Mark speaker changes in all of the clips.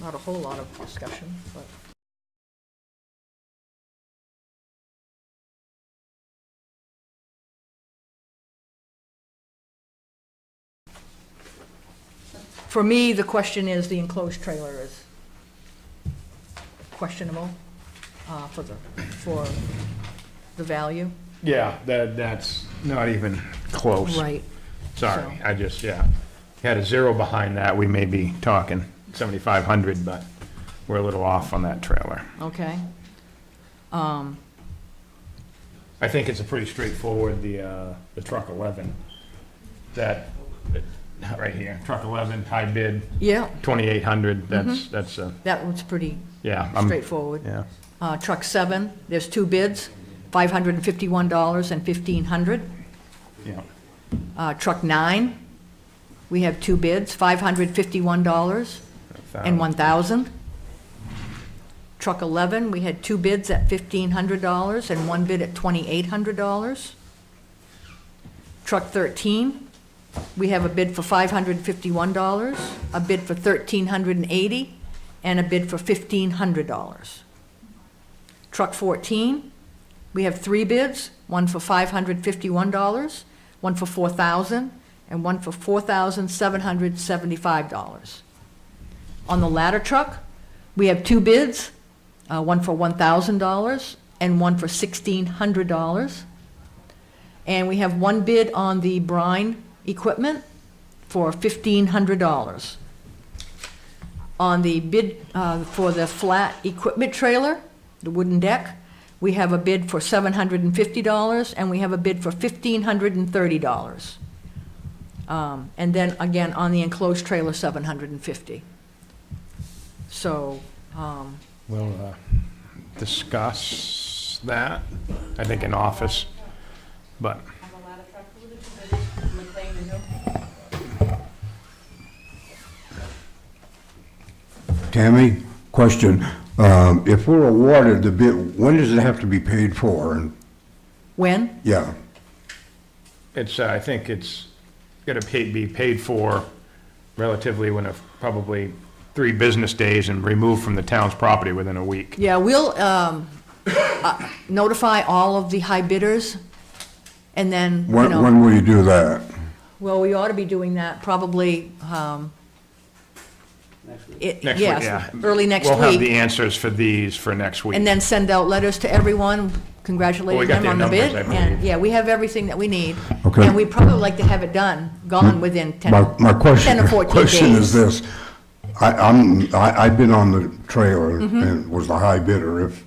Speaker 1: not a whole lot of discussion, but. For me, the question is, the enclosed trailer is questionable uh, for the, for the value.
Speaker 2: Yeah, that, that's not even close.
Speaker 1: Right.
Speaker 2: Sorry,
Speaker 1: So-
Speaker 2: I just, yeah, had a zero behind that, we may be talking 7,500, but we're a little off on that trailer.
Speaker 1: Okay.
Speaker 2: I think it's a pretty straightforward, the, uh, the truck 11, that, that- right here, truck 11, high bid,
Speaker 1: Yeah,
Speaker 2: 2,800, that's,
Speaker 1: Mm-hmm.
Speaker 2: that's, a
Speaker 1: that one's pretty
Speaker 2: yeah. I'm-
Speaker 1: straightforward.
Speaker 2: Yeah,
Speaker 1: Uh, Truck seven, there's two bids, $551 and $1,500.
Speaker 2: yeah,
Speaker 1: Uh, Truck nine, we have two bids, $551 and
Speaker 2: Thousand.
Speaker 1: 1,000. Truck 11, we had two bids at $1,500 and one bid at $2,800. Truck 13, we have a bid for $551, a bid for $1,380, and a bid for $1,500. Truck 14, we have three bids, one for $551, one for $4,000, and one for $4,775. On the ladder truck, we have two bids, uh, one for $1,000 and one for $1,600. And we have one bid on the brine equipment for $1,500. On the bid uh, for the flat equipment trailer, the wooden deck, we have a bid for $750 and we have a bid for $1,530. Um, And then again, on the enclosed trailer, 750. So, um,
Speaker 2: we'll uh, discuss that, I think in office, but,
Speaker 3: Tammy, question. Um, If we're awarded the bid, when does it have to be paid for? And
Speaker 1: when?
Speaker 3: Yeah,
Speaker 2: It's, uh, I think it's going to pay, be paid for relatively when, a- probably three business days and removed from the town's property within a week.
Speaker 1: Yeah, we'll um, uh, notify all of the high bidders, and then, you
Speaker 3: when when
Speaker 1: know,
Speaker 3: will you do that?
Speaker 1: well, we ought to be doing that probably. um, Next
Speaker 2: Next week, yeah.
Speaker 1: Early next
Speaker 2: We'll have the
Speaker 1: week.
Speaker 2: answers for these for next week.
Speaker 1: And then send out letters to everyone
Speaker 2: Well, we
Speaker 1: congratulating
Speaker 2: got
Speaker 1: them on the
Speaker 2: their
Speaker 1: bid.
Speaker 2: numbers, I
Speaker 1: And,
Speaker 2: believe.
Speaker 1: yeah, we have everything that we need.
Speaker 3: Okay. Mm.
Speaker 1: And we'd probably like to have it done, gone within 10,
Speaker 3: My my question,
Speaker 1: 10 or 14 days.
Speaker 3: question is this. I- I'm, I- I've been on the trailer
Speaker 1: Mm-hmm.
Speaker 3: and was the high bidder if,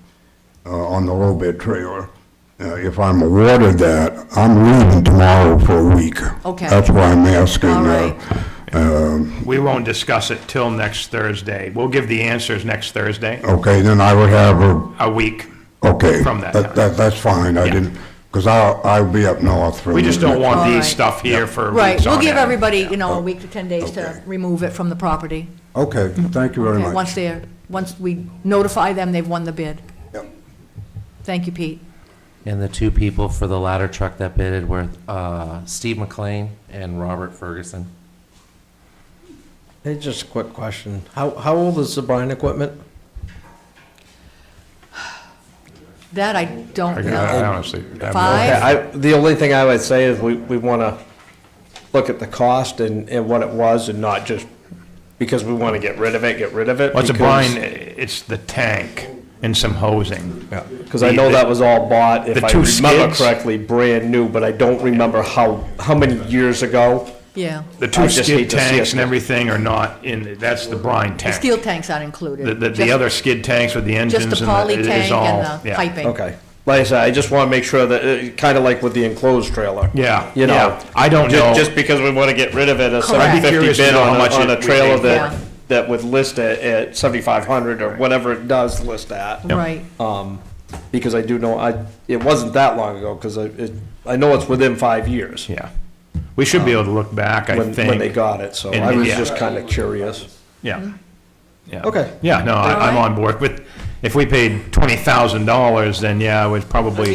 Speaker 3: uh, on the low bid trailer. Uh, If I'm awarded that, I'm leaving tomorrow for a week.
Speaker 1: Okay.
Speaker 3: That's why I'm asking.
Speaker 1: All
Speaker 3: uh,
Speaker 1: right.
Speaker 2: We won't discuss it till next Thursday. We'll give the answers next Thursday,
Speaker 3: Okay, then I would have a
Speaker 2: a week.
Speaker 3: Okay.
Speaker 2: From that time.
Speaker 3: That, that's fine, I
Speaker 2: Yeah.
Speaker 3: didn't, because I'll, I'll be up north for.
Speaker 2: We just don't want
Speaker 1: All right.
Speaker 2: these stuff here for weeks on
Speaker 1: Right, we'll give
Speaker 2: end.
Speaker 1: everybody, you know, a week to 10 days to
Speaker 3: Okay.
Speaker 1: remove it from the property.
Speaker 3: Okay, thank you very
Speaker 1: Okay, Once
Speaker 3: much.
Speaker 1: they're, once we notify them, they've won the bid.
Speaker 3: Yep.
Speaker 1: Thank you, Pete.
Speaker 4: And the two people for the ladder truck that bidded were uh, Steve McLean and Robert Ferguson.
Speaker 5: Hey, just a quick question. How, how old is the brine equipment?
Speaker 1: That I don't
Speaker 2: I uh, I
Speaker 1: know.
Speaker 2: honestly. I have no-
Speaker 1: Five?
Speaker 5: I, the only thing I would say is we, we want to look at the cost and, and what it was and not just because we want to get rid of it, get rid of it.
Speaker 2: What's a
Speaker 5: because-
Speaker 2: brine? It's the tank and some hosing.
Speaker 5: Yeah, because I know that was all bought, if
Speaker 2: The
Speaker 5: I
Speaker 2: two
Speaker 5: remember
Speaker 2: skids?
Speaker 5: correctly, brand new, but I don't remember how, how many years ago.
Speaker 1: Yeah.
Speaker 2: The
Speaker 5: I
Speaker 2: two
Speaker 5: just
Speaker 2: skid
Speaker 5: hate to see
Speaker 2: tanks
Speaker 5: us-
Speaker 2: and everything are not in, that's the brine
Speaker 1: The
Speaker 2: tank.
Speaker 1: steel tanks aren't
Speaker 2: The,
Speaker 1: included.
Speaker 2: the, the
Speaker 1: Just-
Speaker 2: other skid tanks with the
Speaker 1: Just
Speaker 2: engines and
Speaker 1: the
Speaker 2: the,
Speaker 1: poly
Speaker 2: it
Speaker 1: tank
Speaker 2: is all,
Speaker 1: and the
Speaker 2: yeah.
Speaker 1: piping.
Speaker 5: Okay. Like I said, I just want to make sure that, kind of like with the enclosed trailer.
Speaker 2: Yeah,
Speaker 5: You know?
Speaker 2: yeah. I don't
Speaker 5: Ju-
Speaker 2: know.
Speaker 5: Just because we want to get rid of it, a
Speaker 1: Correct.
Speaker 5: seven
Speaker 1: I'd be
Speaker 5: fifty
Speaker 2: curious to
Speaker 5: bid
Speaker 2: know
Speaker 5: on
Speaker 2: how much
Speaker 5: a, on
Speaker 2: it-
Speaker 5: a
Speaker 2: we
Speaker 5: trailer
Speaker 2: paid.
Speaker 1: Yeah.
Speaker 5: that, that would list it at seventy-five hundred or whatever it does list at.
Speaker 1: Right.
Speaker 5: Um, because I do know, I, it wasn't that long ago, because I, it, I know it's within five years.
Speaker 2: Yeah. We should be able to look back, I
Speaker 5: Um, When,
Speaker 2: think.
Speaker 5: when they got it, so
Speaker 2: And-
Speaker 5: I was
Speaker 2: yeah.
Speaker 5: just kind of curious.
Speaker 2: Yeah. Yeah.
Speaker 5: Okay.
Speaker 2: Yeah, no, I, I'm
Speaker 1: Mm-hmm. All right.
Speaker 2: on board. But if we paid twenty thousand dollars, then yeah, it was probably